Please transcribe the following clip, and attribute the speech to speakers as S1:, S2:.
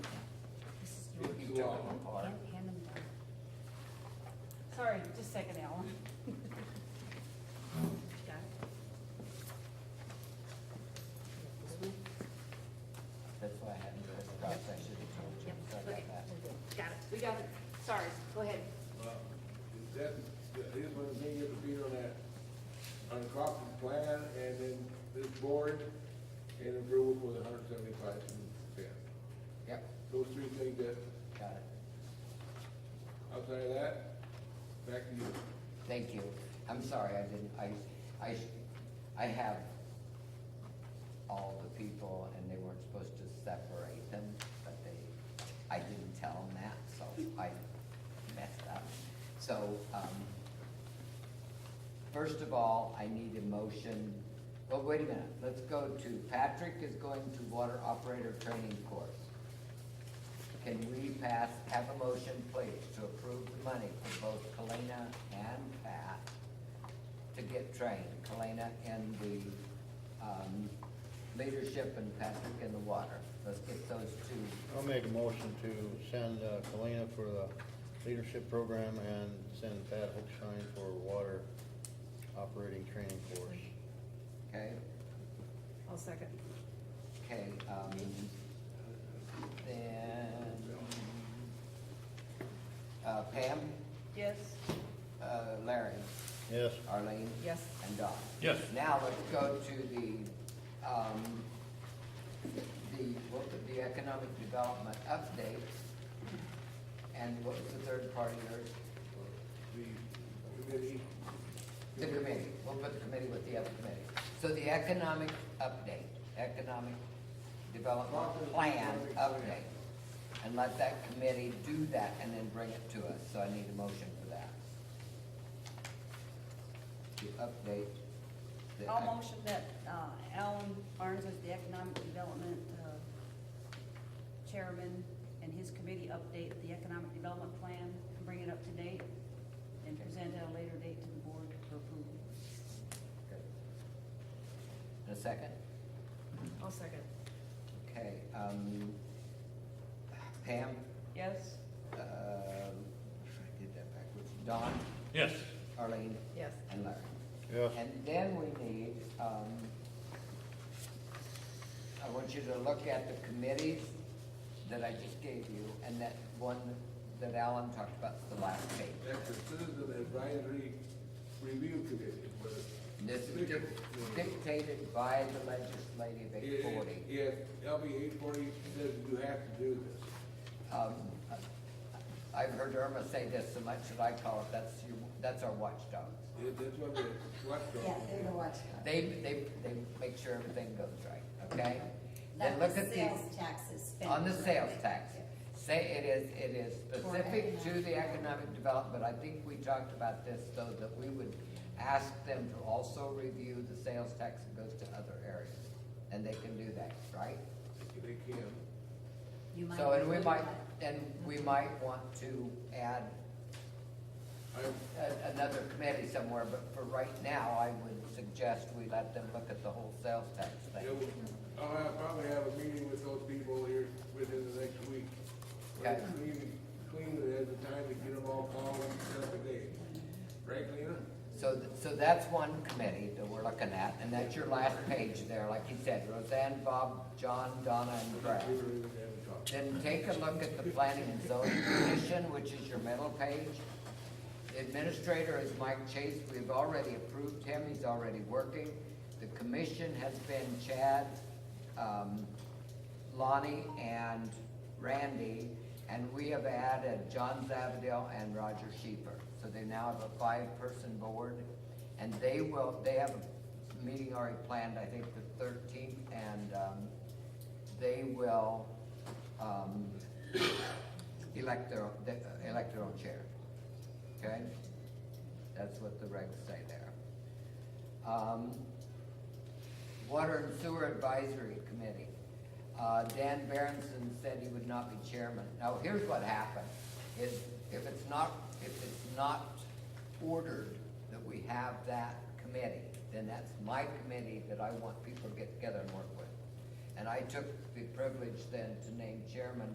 S1: too long.
S2: Hand them down. Sorry, just a second, Alan. Got it?
S3: That's why I hadn't read the docs, I should have told you,
S2: Yep,
S3: so I
S2: okay.
S3: got that.
S2: Got it, we got it. Sorry, go ahead.
S1: Well, is that, that is when they get to beat on that, on the Crawford plan, and then this board, and approval for the hundred seventy-five and ten.
S3: Yep,
S1: Those three things that,
S3: got it.
S1: outside of that, back to you.
S3: Thank you. I'm sorry, I didn't, I, I, I have all the people and they weren't supposed to separate them, but they, I didn't tell them that, so I messed up. So, um, first of all, I need a motion, well, wait a minute, let's go to, Patrick is going to water operator training course. Can we pass, have a motion, please, to approve the money for both Kalina and Pat to get trained? Kalina in the, um, leadership and Patrick in the water. Let's get those two,
S4: I'll make a motion to send uh, Kalina for the leadership program and send Pat Hookshine for water operating training course.
S3: okay?
S5: I'll second.
S3: Okay, um, then, uh, Pam,
S5: Yes.
S3: uh, Larry,
S4: Yes,
S3: Arlene?
S5: Yes.
S3: And Don?
S6: Yes.
S3: Now let's go to the, um, the, what, was the economic development update. And what was the third part of yours?
S1: The committee,
S3: The committee, we'll put the committee with the other committee. So the economic update, economic development plan update. And let that committee do that and then bring it to us, so I need a motion for that. To update. the ec-
S2: I'll motion that uh, Alan Barnes is the Economic Development uh, Chairman, and his committee update the Economic Development Plan, and bring it up to date, and present at a later date to the board for approval.
S3: Okay. In a second,
S5: I'll second.
S3: okay, um, Pam,
S2: Yes?
S3: uh, I did that backwards, Don,
S6: Yes.
S3: Arlene,
S5: Yes.
S3: and Larry.
S4: yes,
S3: And then we need, um, I want you to look at the committees that I just gave you, and that one that Alan talked about, the last page.
S1: that's the citizen advisory review committee, but.
S3: And This is dic- dictated by the legislative eight forty.
S1: Yes, LB eight forty says you have to do this.
S3: Um, I've heard Irma say this so much that I call it, that's your, that's our watchdog.
S1: It- That's what the, what the.
S3: They, they, they make sure everything goes right, okay? Then
S7: Like
S3: look
S7: the
S3: at these.
S7: sales taxes.
S3: On the sales tax, say it is, it is specific to the economic development, I think we talked about this, though, that we would ask them to also review the sales tax that goes to other areas, and they can do that, right?
S1: They can.
S7: You might
S3: So, and we
S7: include
S3: might,
S7: that.
S3: and we might want to add
S1: I'm,
S3: a- another committee somewhere, but for right now, I would suggest we let them look at the whole sales tax thing.
S1: It will- I'll have- probably have a meeting with those people here within the next week.
S3: Okay.
S1: Clean, clean it at the time to get them all called and set up a date. Right, Lena?
S3: So, th- so that's one committee that we're looking at, and that's your last page there, like you said, Roseanne, Bob, John, Donna, and Brad.
S1: We really haven't talked.
S3: Then take a look at the planning and zoning commission, which is your middle page. Administrator is Mike Chase, we've already approved him, he's already working. The commission has been Chad, um, Lonnie, and Randy, and we have added John Zavadil and Roger Sheeper. So they now have a five-person board, and they will, they have a meeting already planned, I think the thirteenth, and, um, they will, um, elect their, they- elect their own uh, chair. Okay? That's what the regs say there. Um, Water and Sewer Advisory Committee. Uh, Dan Berenson said he would not be chairman. Now, here's what happened, is if it's not, if it's not ordered that we have that committee, then that's my committee that I want people to get together and work with. And I took the privilege then to name chairman